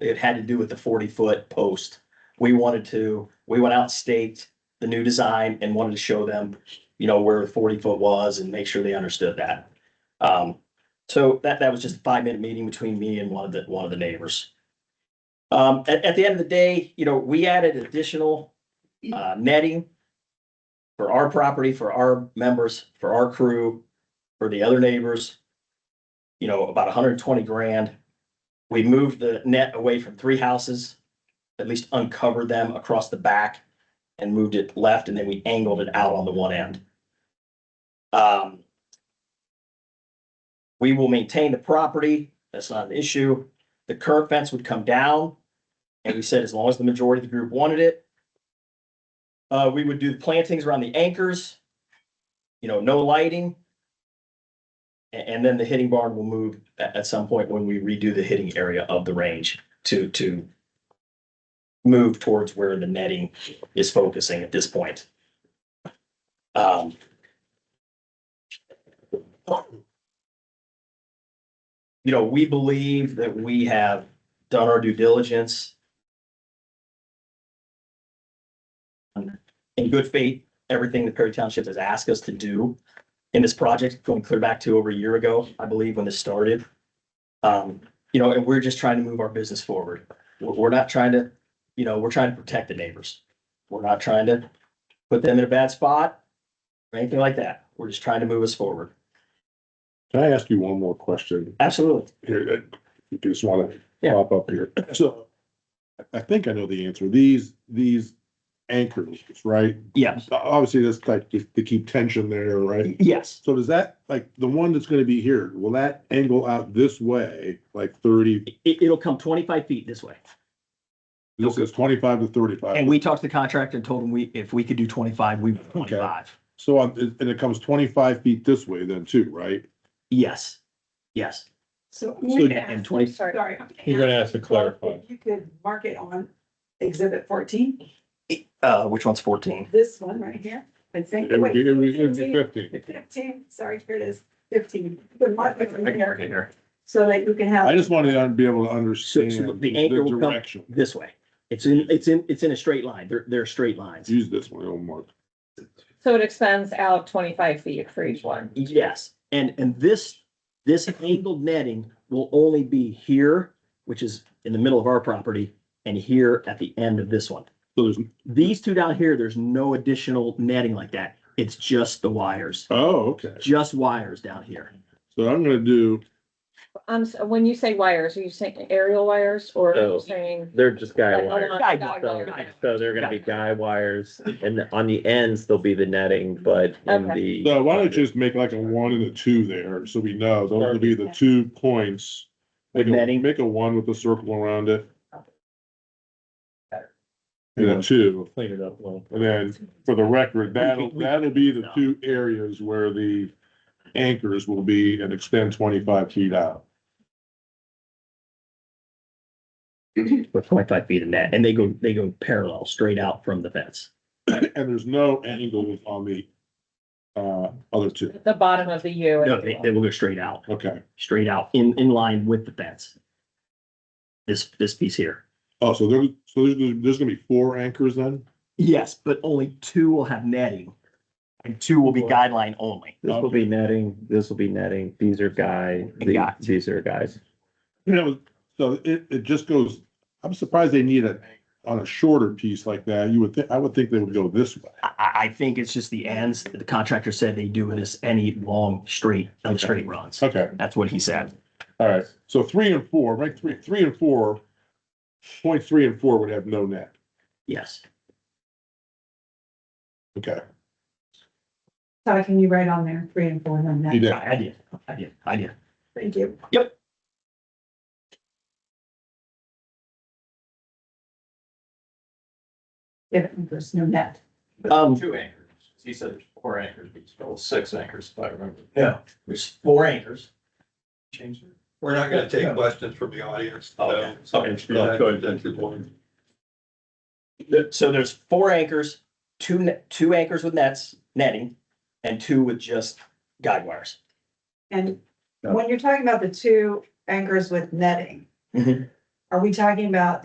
it had to do with the forty foot post. We wanted to, we went out staked the new design and wanted to show them, you know, where the forty foot was and make sure they understood that. Um, so that, that was just a five minute meeting between me and one of the, one of the neighbors. Um, at, at the end of the day, you know, we added additional, uh, netting for our property, for our members, for our crew, for the other neighbors. You know, about hundred and twenty grand. We moved the net away from three houses, at least uncovered them across the back and moved it left, and then we angled it out on the one end. Um, we will maintain the property. That's not an issue. The current fence would come down. And we said as long as the majority of the group wanted it. Uh, we would do the plantings around the anchors. You know, no lighting. A- And, then the hitting barn will move a- at, some point when we redo the hitting area of the range to, to move towards where the netting is focusing at this point. Um, you know, we believe that we have done our due diligence. In good faith, everything that Perry Township has asked us to do in this project, going clear back to over a year ago, I believe, when this started. Um, you know, and we're just trying to move our business forward. We're, we're not trying to, you know, we're trying to protect the neighbors. We're not trying to put them in a bad spot or anything like that. We're just trying to move us forward. Can I ask you one more question Absolutely. here? I just wanna Yeah. pop up here. So I- I think I know the answer. These, these anchors, right? Yeah. Obviously, that's like to to keep tension there, right? Yes. So does that, like, the one that's gonna be here, will that angle out this way, like thirty, It, it'll come twenty-five feet this way. this is twenty-five to And thirty-five? we talked to the contractor and told him we, if we could do twenty-five, we would do twenty-five. So, on- and it comes twenty-five feet this way then too, right? Yes, yes. So. So- I'm gonna And ask- 20 Sorry. sorry, I'm You're gonna ask to clarify. If You could mark it on exhibit fourteen, Uh, which one's fourteen? this one right here, and think, It would be, wait, it would it would be fifty. fifteen, sorry, here it is, fifteen. You could mark it from here here. So that you can have. I just wanted to be able to understand So- so the the anchor will come- direction. This way. It's in, it's in, it's in a straight line. They're, they're straight lines. Use this one, it'll mark. So it extends out twenty-five feet for each one. Yes, and, and this, this angled netting will only be here, which is in the middle of our property, and here at the end of this one. So there's, These two down here, there's no additional netting like that. It's just the wires, oh, okay. just wires down here. So I'm gonna do, Um, so when you say wires, are you saying aerial wires or are No. you saying? They're just guy Like, wires. oh, Guy guy So, wire. so they're gonna be guy wires and on the ends, there'll be the netting, but in the. so why don't you just make like a one and a two there, so we know, those will be the two points. Make With a, netting. make a one with a circle around it. And a two, Clean it up a little. and then for the record, that'll, We- we- that'll be the two areas where the anchors will be and extend twenty-five feet out. With twenty-five feet of net, and they go, they go parallel, straight out from the fence. And there's no angles on the, uh, other two, The bottom of the U. No, they, they will go straight out, okay. straight out, in, in line with the fence. This, this piece here. Oh, so there, so there's, there's gonna be four anchors then? Yes, but only two will have netting, and two will be guideline only. This will be netting, this will be netting, these are guy, the- Guy. these are guys. You know, so it, it just goes, I'm surprised they need it on a shorter piece like that. You would think, I would think they would go this way. I, I, I think it's just the ends. The contractor said they do this any long straight, uh, straight runs. Okay, That's what he said. all right. So three and four, right? Three, three and four, point three and four would have no net. Yes. Okay. So can you write on there, three and four, and then You that, did. I I did. I did. I did. thank you. If there's no net. Um, two anchors. He said there's four anchors, but it's still six anchors, if I remember. Yeah. there's four anchors. Change it. We're not gonna take questions from the audience. so- Oh, Okay. so that's- that's the point. There- So there's four anchors, two, ne- two anchors with nets, netting, and two with just guide wires. And Yeah. when you're talking about the two anchors with netting, Mhm. Are we talking about